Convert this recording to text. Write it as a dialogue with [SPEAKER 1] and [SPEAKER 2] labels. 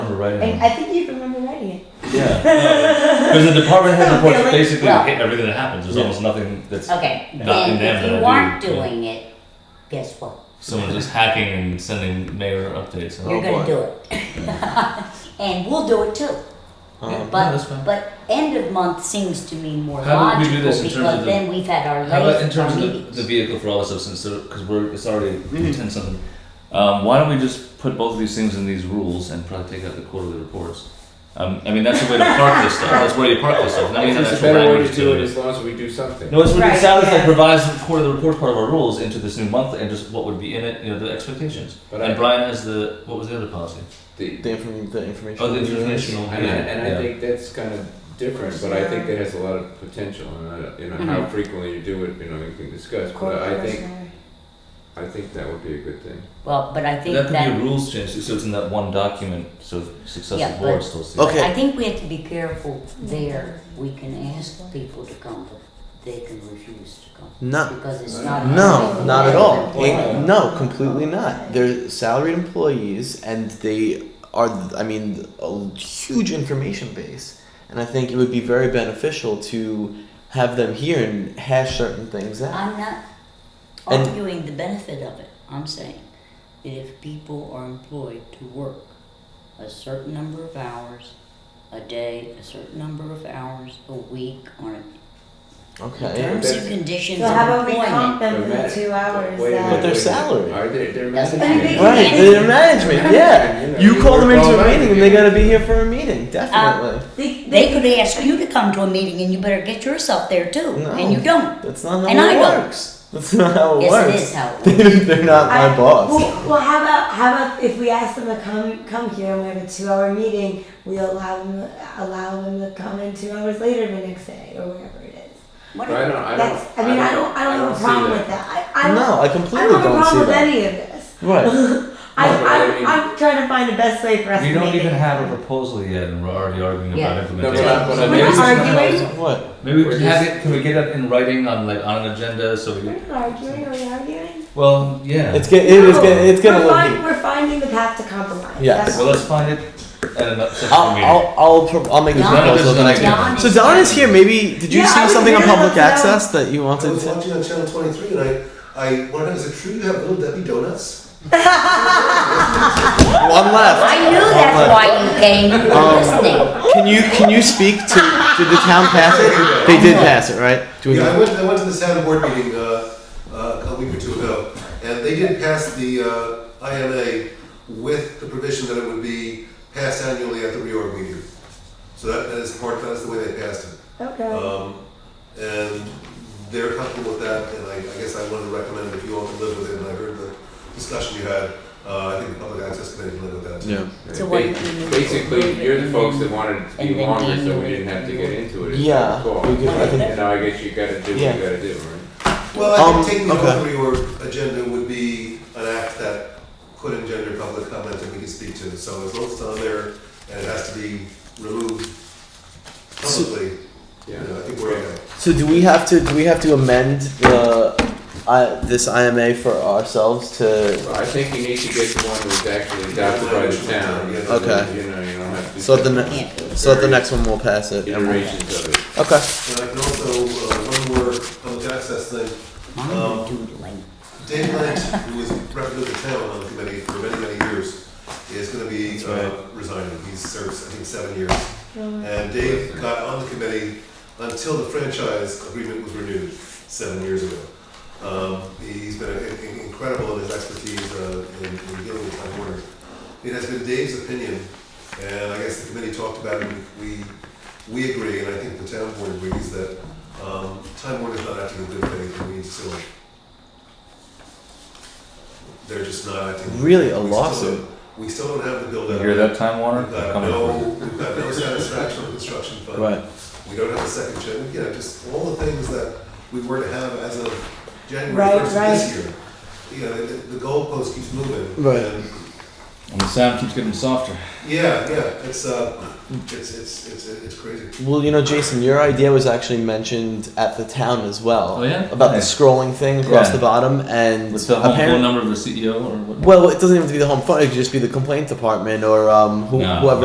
[SPEAKER 1] writing
[SPEAKER 2] And
[SPEAKER 1] them.
[SPEAKER 2] I think you remember writing it.
[SPEAKER 1] Oh, Yeah. Because the department head reports
[SPEAKER 2] Really?
[SPEAKER 1] basically
[SPEAKER 3] Well-
[SPEAKER 1] hit everything that happens. There's
[SPEAKER 3] Yeah.
[SPEAKER 1] almost nothing that's
[SPEAKER 3] Okay,
[SPEAKER 1] Not
[SPEAKER 3] then
[SPEAKER 1] in them
[SPEAKER 3] if
[SPEAKER 1] that I
[SPEAKER 3] you
[SPEAKER 1] do,
[SPEAKER 3] aren't
[SPEAKER 1] yeah.
[SPEAKER 3] doing it, guess what?
[SPEAKER 1] someone just hacking and sending mayor updates. And,
[SPEAKER 3] You're
[SPEAKER 4] Oh,
[SPEAKER 3] gonna
[SPEAKER 4] boy.
[SPEAKER 3] do it. And we'll do it too.
[SPEAKER 4] Um,
[SPEAKER 3] But,
[SPEAKER 1] Oh, that's fine.
[SPEAKER 3] but end of month seems to me more
[SPEAKER 1] How about we do
[SPEAKER 3] logical
[SPEAKER 1] this in terms of
[SPEAKER 3] because
[SPEAKER 1] the-
[SPEAKER 3] then we've had our
[SPEAKER 1] How about in
[SPEAKER 3] last, our
[SPEAKER 1] terms of the,
[SPEAKER 3] meetings.
[SPEAKER 1] the vehicle for all this stuff, since because we're it's already
[SPEAKER 5] Mm.
[SPEAKER 1] ten something. Um, why don't we just put both of these things in these rules and probably take out the quarterly reports? Um, I mean, that's a way to park this stuff. That's where you park this stuff. Not
[SPEAKER 5] If
[SPEAKER 1] even
[SPEAKER 5] there's a
[SPEAKER 1] actual
[SPEAKER 5] better way
[SPEAKER 1] language
[SPEAKER 5] to do it,
[SPEAKER 1] it.
[SPEAKER 5] as long as we do something.
[SPEAKER 1] No, it's what it
[SPEAKER 2] Right,
[SPEAKER 1] sounds like
[SPEAKER 2] yeah.
[SPEAKER 1] provides the quarterly report part of our rules into this new month and just what would be in it, you know, the expectations.
[SPEAKER 5] But
[SPEAKER 1] and
[SPEAKER 5] I-
[SPEAKER 1] Brian has the what was the other policy?
[SPEAKER 5] The-
[SPEAKER 4] the, inform- the information.
[SPEAKER 1] Oh, the informational.
[SPEAKER 5] And I,
[SPEAKER 1] yeah,
[SPEAKER 5] and
[SPEAKER 1] yeah.
[SPEAKER 5] I think that's kind of different, but I think that has a lot of potential, and I, don't- you know, how
[SPEAKER 2] Mm-hmm.
[SPEAKER 5] frequently you do it, you know, we can discuss, but I think, I think that would be a good thing.
[SPEAKER 3] well, but I think
[SPEAKER 1] that could be
[SPEAKER 3] that,
[SPEAKER 1] a rules change, so it's in that one document, so
[SPEAKER 3] Yeah,
[SPEAKER 1] successive
[SPEAKER 3] but-
[SPEAKER 1] boards still see.
[SPEAKER 4] Okay.
[SPEAKER 3] I think we have to be careful there. We can ask people to come, but they can refuse to come.
[SPEAKER 4] No,
[SPEAKER 3] Because it's
[SPEAKER 5] No.
[SPEAKER 3] not.
[SPEAKER 4] no, not at all.
[SPEAKER 5] Why?
[SPEAKER 4] no, completely not. They're salaried employees, and they are. I mean, a huge information base, and I think it would be very beneficial to have them here and hash certain things out.
[SPEAKER 3] I'm not
[SPEAKER 4] And-
[SPEAKER 3] arguing the benefit of it. I'm saying that if people are employed to work a certain number of hours a day, a certain number of hours a week on a
[SPEAKER 4] Okay.
[SPEAKER 3] terms and conditions
[SPEAKER 2] So
[SPEAKER 3] of
[SPEAKER 2] how about we
[SPEAKER 3] employment.
[SPEAKER 2] comp them for
[SPEAKER 5] They're
[SPEAKER 2] the
[SPEAKER 5] mad-
[SPEAKER 2] two hours uh,
[SPEAKER 5] wait a
[SPEAKER 4] But they're
[SPEAKER 5] minute,
[SPEAKER 2] that.
[SPEAKER 5] wait a minute.
[SPEAKER 4] salaried.
[SPEAKER 5] Are they, they're
[SPEAKER 3] That's
[SPEAKER 5] managing
[SPEAKER 2] what I
[SPEAKER 5] it.
[SPEAKER 2] think.
[SPEAKER 4] Right, they're management. Yeah. You call them into a meeting, and they gotta be here for a meeting. Definitely.
[SPEAKER 3] Um,
[SPEAKER 2] They,
[SPEAKER 3] They could ask you to come to a meeting and you better get yourself there too, and you
[SPEAKER 4] No.
[SPEAKER 3] don't.
[SPEAKER 4] That's not how
[SPEAKER 3] And I
[SPEAKER 4] it
[SPEAKER 3] don't.
[SPEAKER 4] works. That's not how it
[SPEAKER 3] Yes,
[SPEAKER 4] works.
[SPEAKER 3] it is how it works.
[SPEAKER 4] They're not my
[SPEAKER 2] I-
[SPEAKER 4] boss.
[SPEAKER 2] Well, well, how about how about if we ask them to come come here and we have a two hour meeting, we allow them allow them to come in two hours later the next day or whatever it is.
[SPEAKER 5] But I don't, I don't.
[SPEAKER 2] That's I mean I don't I don't, have a
[SPEAKER 5] see
[SPEAKER 2] problem
[SPEAKER 5] that.
[SPEAKER 2] with that. I, I don't,
[SPEAKER 4] No, I
[SPEAKER 2] I
[SPEAKER 4] completely
[SPEAKER 2] don't have a
[SPEAKER 4] don't see
[SPEAKER 2] problem with
[SPEAKER 4] that.
[SPEAKER 2] any of this.
[SPEAKER 4] Right.
[SPEAKER 2] I,
[SPEAKER 5] No, but I mean-
[SPEAKER 2] I, I'm trying to find the best way for us
[SPEAKER 1] We
[SPEAKER 2] to
[SPEAKER 1] don't
[SPEAKER 2] make
[SPEAKER 1] even
[SPEAKER 2] it.
[SPEAKER 1] have a proposal yet, and we're already arguing
[SPEAKER 3] Yeah.
[SPEAKER 1] about
[SPEAKER 5] No,
[SPEAKER 1] implementation.
[SPEAKER 5] but I, but I
[SPEAKER 2] We're not
[SPEAKER 5] mean,
[SPEAKER 2] arguing.
[SPEAKER 4] What?
[SPEAKER 1] Maybe we
[SPEAKER 5] We're
[SPEAKER 1] can have
[SPEAKER 5] just-
[SPEAKER 1] it. Can we get it in writing on like on an agenda? So we.
[SPEAKER 2] We're not arguing. Are we arguing?
[SPEAKER 1] Well, yeah.
[SPEAKER 4] It's get, it is
[SPEAKER 2] No,
[SPEAKER 4] get, it's gonna
[SPEAKER 2] we're,
[SPEAKER 4] look.
[SPEAKER 2] find, we're finding the path to compromise.
[SPEAKER 4] Yes.
[SPEAKER 2] That's
[SPEAKER 1] well,
[SPEAKER 2] all.
[SPEAKER 1] let's find it at another session
[SPEAKER 4] I'll,
[SPEAKER 1] meeting.
[SPEAKER 4] I'll, I'll, pro- I'll make this
[SPEAKER 3] Don-
[SPEAKER 4] proposal the next
[SPEAKER 1] Don
[SPEAKER 4] time.
[SPEAKER 3] is
[SPEAKER 4] So Don is here. Maybe did you
[SPEAKER 2] Yeah, I
[SPEAKER 4] see
[SPEAKER 2] was
[SPEAKER 4] something on
[SPEAKER 2] here,
[SPEAKER 4] public
[SPEAKER 2] yeah.
[SPEAKER 4] access that you
[SPEAKER 6] I
[SPEAKER 4] wanted
[SPEAKER 6] was
[SPEAKER 4] to?
[SPEAKER 6] watching on Channel 23 and I, I wondered, is it true you have Little Debbie donuts?
[SPEAKER 4] One
[SPEAKER 3] I
[SPEAKER 4] left.
[SPEAKER 3] knew that's why you came, you were
[SPEAKER 4] Um,
[SPEAKER 3] listening.
[SPEAKER 4] Can you can you speak to did the town pass it? They did pass it, right? Do we
[SPEAKER 6] Yeah, I
[SPEAKER 4] know?
[SPEAKER 6] went, I went to the Saturn board meeting uh, uh, a week or two ago, and they did pass the uh, IMA with the provision that it would be passed annually at the reorg meeting. So that, that is part, that's the way they passed it.
[SPEAKER 2] Okay.
[SPEAKER 6] Um, and they're comfortable with that, and I, I guess I wanted to recommend if you all can live with it, and I heard the discussion you had, uh, I think the Public Access Committee can live with that too.
[SPEAKER 4] Yeah.
[SPEAKER 3] So what do you need?
[SPEAKER 5] Basically, you're the folks that wanted it to be
[SPEAKER 3] And then
[SPEAKER 5] longer,
[SPEAKER 3] do
[SPEAKER 5] so
[SPEAKER 3] you-
[SPEAKER 5] we didn't have to get into it. is
[SPEAKER 4] Yeah,
[SPEAKER 5] the call.
[SPEAKER 4] we could- I think-
[SPEAKER 5] And now I guess you gotta do what you
[SPEAKER 4] Yeah.
[SPEAKER 5] gotta do, right?
[SPEAKER 6] Well, I
[SPEAKER 4] Um,
[SPEAKER 6] think taking the
[SPEAKER 4] okay.
[SPEAKER 6] open reorg agenda would be an act that could engender public comment that we could speak to, so as long as it's on there and it has to be removed
[SPEAKER 4] So-
[SPEAKER 6] publicly, you know, I think we're okay.
[SPEAKER 4] So do we have to do we have to amend the I, this IMA for ourselves to
[SPEAKER 5] Well, I think you need to get the one that was actually adopted by the town.
[SPEAKER 6] Okay.
[SPEAKER 5] You know, you don't have to.
[SPEAKER 4] so at the
[SPEAKER 5] different
[SPEAKER 4] ne- so at the next one we'll pass it. and we'll-
[SPEAKER 5] Iterations of it.
[SPEAKER 4] Okay.
[SPEAKER 6] And I can also, uh, one more public access thing,
[SPEAKER 3] Mine
[SPEAKER 6] Um,
[SPEAKER 3] would do like
[SPEAKER 6] Dave Lent, who was represented the town on the committee for many, many years, is gonna be uh, resigning, he serves, I think, seven years. And Dave got on the committee until the franchise agreement was renewed seven years ago. Um, he's been in- in- incredible in his expertise uh, in, in dealing with town order. It has been Dave's opinion, and I guess the committee talked about it, and we, we agree, and I think the town board agrees that, um, time Warner is not acting in good faith, and we need to sue it. They're just not acting.
[SPEAKER 4] Really, a
[SPEAKER 6] We still don't-
[SPEAKER 4] lawsuit?
[SPEAKER 6] We still don't have the build
[SPEAKER 1] You
[SPEAKER 6] out.
[SPEAKER 1] hear that, Time Warner?
[SPEAKER 6] We've got
[SPEAKER 1] Coming
[SPEAKER 6] no,
[SPEAKER 1] for it.
[SPEAKER 6] we've got no satisfaction on construction fund.
[SPEAKER 4] Right.
[SPEAKER 6] We don't have a second gen, you know, just all the things that we were to have as of January
[SPEAKER 2] Right,
[SPEAKER 6] first of this year. You know, the, the goalpost keeps moving.
[SPEAKER 4] Right.
[SPEAKER 6] and-
[SPEAKER 1] And the sound keeps getting softer.
[SPEAKER 6] Yeah, yeah, it's, uh, it's, it's, it's, it's crazy.
[SPEAKER 4] Well, you know, Jason, your idea was actually mentioned at the town as well.
[SPEAKER 1] Oh, yeah?
[SPEAKER 4] About the
[SPEAKER 1] Nice.
[SPEAKER 4] scrolling thing across
[SPEAKER 1] Yeah.
[SPEAKER 4] the bottom, and
[SPEAKER 1] What's the home phone
[SPEAKER 4] apparently,
[SPEAKER 1] number of the CEO or what?
[SPEAKER 4] well, it doesn't even have to be the home phone; it could just be the complaint department or um, who,
[SPEAKER 1] No.
[SPEAKER 4] whoever